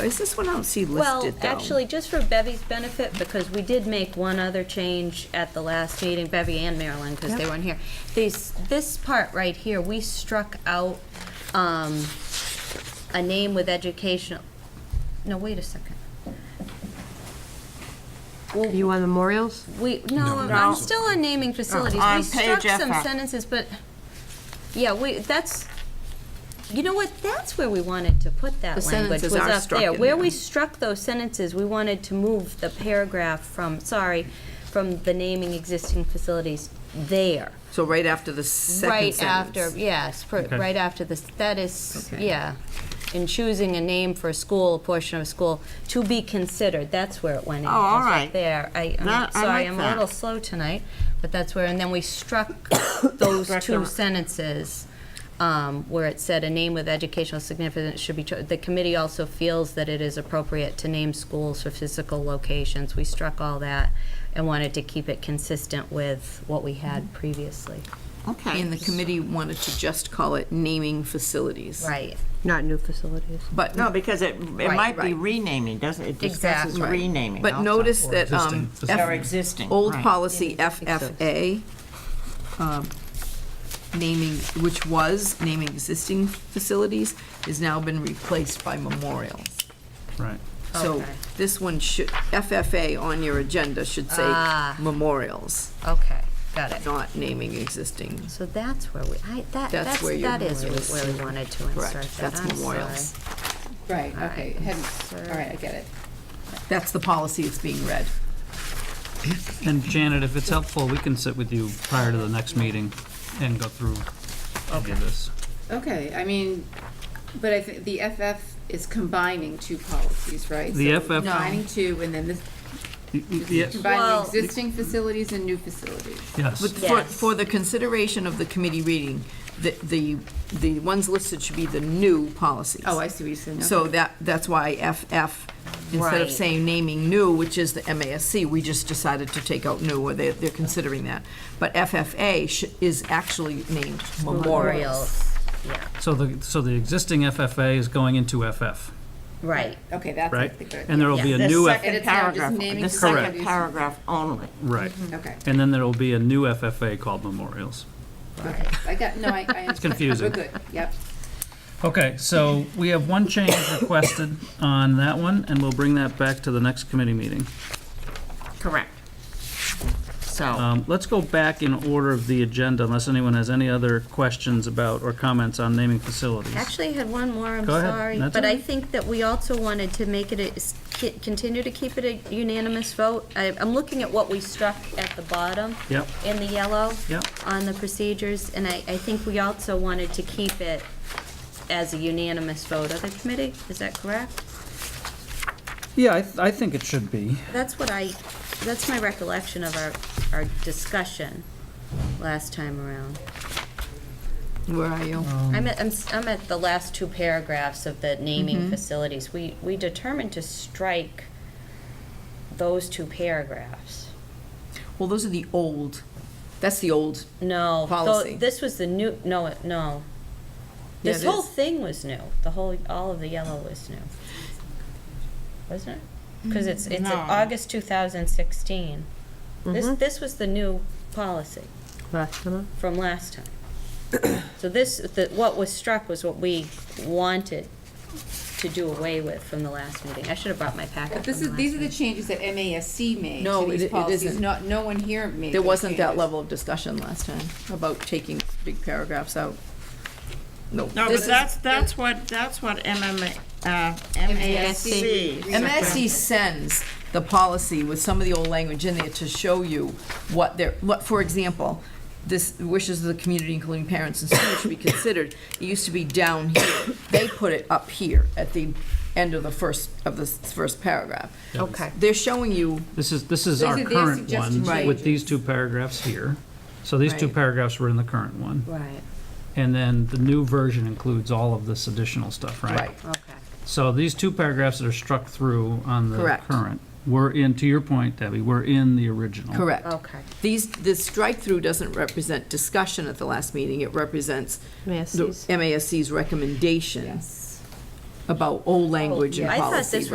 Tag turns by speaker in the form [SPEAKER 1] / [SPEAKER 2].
[SPEAKER 1] Is this one I don't see
[SPEAKER 2] Well,
[SPEAKER 1] listed, though?
[SPEAKER 2] actually, just for Bevy's benefit, because we did make one other change at the last meeting, Bevy and Marilyn, because they
[SPEAKER 1] Yep.
[SPEAKER 2] weren't here. These, this part right here, we struck out, um, a name with educational, no, wait a second. Well,
[SPEAKER 3] You want memorials?
[SPEAKER 2] we, no, I'm still on naming facilities.
[SPEAKER 1] Oh, On
[SPEAKER 2] We struck
[SPEAKER 1] page
[SPEAKER 2] some
[SPEAKER 1] FF.
[SPEAKER 2] sentences, but, yeah, we, that's, you know what, that's where we wanted to put that
[SPEAKER 1] The
[SPEAKER 2] language, was
[SPEAKER 1] sentences are
[SPEAKER 2] up
[SPEAKER 1] struck
[SPEAKER 2] there.
[SPEAKER 1] in
[SPEAKER 2] Where
[SPEAKER 1] there.
[SPEAKER 2] we struck those sentences, we wanted to move the paragraph from, sorry, from the naming existing facilities there.
[SPEAKER 1] So right after the second
[SPEAKER 2] Right after,
[SPEAKER 1] sentence.
[SPEAKER 2] yes, per- right after this, that is,
[SPEAKER 1] Okay.
[SPEAKER 2] yeah. In choosing a name for a school, a portion of a school, to be considered, that's where it went in.
[SPEAKER 4] Oh, all
[SPEAKER 2] It was up
[SPEAKER 4] right.
[SPEAKER 2] There, I,
[SPEAKER 4] That-
[SPEAKER 2] I'm
[SPEAKER 4] I
[SPEAKER 2] sorry,
[SPEAKER 4] like
[SPEAKER 2] I'm a
[SPEAKER 4] that.
[SPEAKER 2] little slow tonight, but that's where, and then we struck those two sentences um, where it said, "A name with educational significance should be, cho- the committee also feels that it is appropriate to name schools for physical locations." We struck all that and wanted to keep it consistent with what we had previously.
[SPEAKER 4] Okay.
[SPEAKER 1] And the committee wanted to just call it naming facilities.
[SPEAKER 2] Right.
[SPEAKER 3] Not new facilities.
[SPEAKER 1] But,
[SPEAKER 4] No, because it, it
[SPEAKER 2] Right,
[SPEAKER 4] might be
[SPEAKER 1] right.
[SPEAKER 4] renaming, doesn't, it discusses
[SPEAKER 2] Exactly.
[SPEAKER 4] renaming
[SPEAKER 1] but
[SPEAKER 4] also.
[SPEAKER 1] notice that, um, F-
[SPEAKER 4] Or existing,
[SPEAKER 1] old
[SPEAKER 4] right.
[SPEAKER 1] policy
[SPEAKER 2] Yeah, I think so.
[SPEAKER 1] FFA, um, naming, which was naming existing facilities, has now been replaced by memorials.
[SPEAKER 5] Right.
[SPEAKER 1] So
[SPEAKER 2] Okay.
[SPEAKER 1] this one should, FFA on your agenda should say
[SPEAKER 2] Ah.
[SPEAKER 1] memorials,
[SPEAKER 2] Okay, got it.
[SPEAKER 1] not naming existing.
[SPEAKER 2] So that's where we, I,
[SPEAKER 1] That's
[SPEAKER 2] that, that's,
[SPEAKER 1] where your
[SPEAKER 2] that is
[SPEAKER 1] memorials-
[SPEAKER 2] where we wanted to insert that.
[SPEAKER 1] Correct, that's
[SPEAKER 2] I'm
[SPEAKER 1] memorials.
[SPEAKER 2] sorry.
[SPEAKER 6] Right,
[SPEAKER 2] All
[SPEAKER 6] okay,
[SPEAKER 2] right,
[SPEAKER 6] hadn't- all right, I get it.
[SPEAKER 1] That's the policy that's being read.
[SPEAKER 5] And Janet, if it's helpful, we can sit with you prior to the next meeting and go through any of this.
[SPEAKER 6] Okay, I mean, but I think the FF is combining two policies, right?
[SPEAKER 5] The
[SPEAKER 6] So
[SPEAKER 5] FF
[SPEAKER 6] Combining two, and then this,
[SPEAKER 5] Y- y- yes,
[SPEAKER 2] Well-
[SPEAKER 6] combining existing facilities and new facilities.
[SPEAKER 1] But
[SPEAKER 5] Yes,
[SPEAKER 1] for,
[SPEAKER 2] Yes.
[SPEAKER 1] for the consideration of the committee reading, the, the, the ones listed should be the new policies.
[SPEAKER 6] Oh, I see what you're saying,
[SPEAKER 1] So
[SPEAKER 6] okay.
[SPEAKER 1] that, that's why FF, instead of
[SPEAKER 2] Right.
[SPEAKER 1] saying naming new, which is the MASC, we just decided to take out new, or they're, they're considering that. But FFA sh- is actually named memorials.
[SPEAKER 2] Memorials, yeah,
[SPEAKER 5] so the, so the existing FFA is going into FF,
[SPEAKER 2] right.
[SPEAKER 6] Okay, that's, I
[SPEAKER 5] right?
[SPEAKER 6] think, that-
[SPEAKER 5] And there'll be
[SPEAKER 4] The
[SPEAKER 5] a new, F-
[SPEAKER 6] And
[SPEAKER 4] second
[SPEAKER 6] it's now just
[SPEAKER 4] paragraph,
[SPEAKER 6] naming
[SPEAKER 4] the
[SPEAKER 6] facilities.
[SPEAKER 4] second paragraph only.
[SPEAKER 5] right,
[SPEAKER 6] okay,
[SPEAKER 5] and then there'll be a new FFA called memorials.
[SPEAKER 6] okay. I got, no, I, I. It's
[SPEAKER 5] confusing.
[SPEAKER 6] We're good, yep.
[SPEAKER 5] Okay, so we have one change requested on that one, and we'll bring that back to the next committee meeting.
[SPEAKER 4] Correct. So,
[SPEAKER 5] Um, Let's go back in order of the agenda, unless anyone has any other questions about or comments on naming facilities.
[SPEAKER 2] Actually, I had one more, I'm
[SPEAKER 5] Go ahead.
[SPEAKER 2] sorry.
[SPEAKER 5] That's
[SPEAKER 2] But
[SPEAKER 5] all
[SPEAKER 2] I
[SPEAKER 5] right.
[SPEAKER 2] think that we also wanted to make it, a s- ki- continue to keep it a unanimous vote. I- I'm looking at what we struck at the bottom.
[SPEAKER 5] Yep.
[SPEAKER 2] In the yellow.
[SPEAKER 5] Yep.
[SPEAKER 2] On the procedures, and I, I think we also wanted to keep it as a unanimous vote of the committee, is that correct?
[SPEAKER 5] Yeah, I, th- I think it should be.
[SPEAKER 2] That's what I, that's my recollection of our, our discussion last time around.
[SPEAKER 1] Where are you?
[SPEAKER 2] I'm at, I'm, s- I'm at the last two paragraphs of the
[SPEAKER 1] Mm-hmm.
[SPEAKER 2] naming facilities. We, we determined to strike those two paragraphs.
[SPEAKER 1] Well, those are the old, that's the old,
[SPEAKER 2] No. tho-
[SPEAKER 1] Policy.
[SPEAKER 2] This was the new, no, it- no.
[SPEAKER 1] Yeah,
[SPEAKER 2] This
[SPEAKER 1] it
[SPEAKER 2] whole
[SPEAKER 1] is.
[SPEAKER 2] thing was new. The whole, all of the yellow was new. Wasn't it? Because it's, it's in
[SPEAKER 4] No.
[SPEAKER 2] August 2016. This,
[SPEAKER 1] Mm-hmm.
[SPEAKER 2] this was the new policy
[SPEAKER 3] Last one?
[SPEAKER 2] from last time. So this, the- what was struck was what we wanted to do away with from the last meeting. I should have brought my packet
[SPEAKER 6] But
[SPEAKER 2] from
[SPEAKER 6] this
[SPEAKER 2] the
[SPEAKER 6] is, these are
[SPEAKER 2] last
[SPEAKER 6] the
[SPEAKER 2] meeting.
[SPEAKER 6] changes that MASC made
[SPEAKER 1] No,
[SPEAKER 6] to
[SPEAKER 1] it-
[SPEAKER 6] these
[SPEAKER 1] it
[SPEAKER 6] policies,
[SPEAKER 1] isn't.
[SPEAKER 6] not, no one here made
[SPEAKER 1] there
[SPEAKER 6] those
[SPEAKER 1] wasn't that
[SPEAKER 6] changes.
[SPEAKER 1] level of discussion last time about taking big paragraphs out. No. this
[SPEAKER 4] no, but
[SPEAKER 1] is-
[SPEAKER 4] that's, that's what, that's what MMA, uh, MASC.
[SPEAKER 1] MSC sends the policy with some of the old language in there to show you what they're, what, for example, this wishes of the community, including parents and students, should be considered. It used to be down here. They put it up here at the end of the first, of the first paragraph.
[SPEAKER 2] Okay.
[SPEAKER 1] They're showing you,
[SPEAKER 5] This is, this is
[SPEAKER 6] These
[SPEAKER 5] our
[SPEAKER 6] are their
[SPEAKER 5] current
[SPEAKER 6] suggested
[SPEAKER 5] one, with these two paragraphs here. So these two
[SPEAKER 1] Right.
[SPEAKER 5] paragraphs were in the current one.
[SPEAKER 2] Right,
[SPEAKER 5] And then the new version includes all of this additional stuff, right?
[SPEAKER 1] right,
[SPEAKER 2] okay.
[SPEAKER 5] So these two paragraphs that are struck through on the
[SPEAKER 1] Correct.
[SPEAKER 5] current were in, to your point, Debbie, were in the original.
[SPEAKER 1] correct.
[SPEAKER 2] Okay.
[SPEAKER 1] These, this strike-through doesn't represent discussion at the last meeting. It represents the
[SPEAKER 3] MASCs.
[SPEAKER 1] MASC's recommendation.
[SPEAKER 6] Yes.
[SPEAKER 7] about old language in
[SPEAKER 1] I
[SPEAKER 7] policy.
[SPEAKER 1] Oh, thought this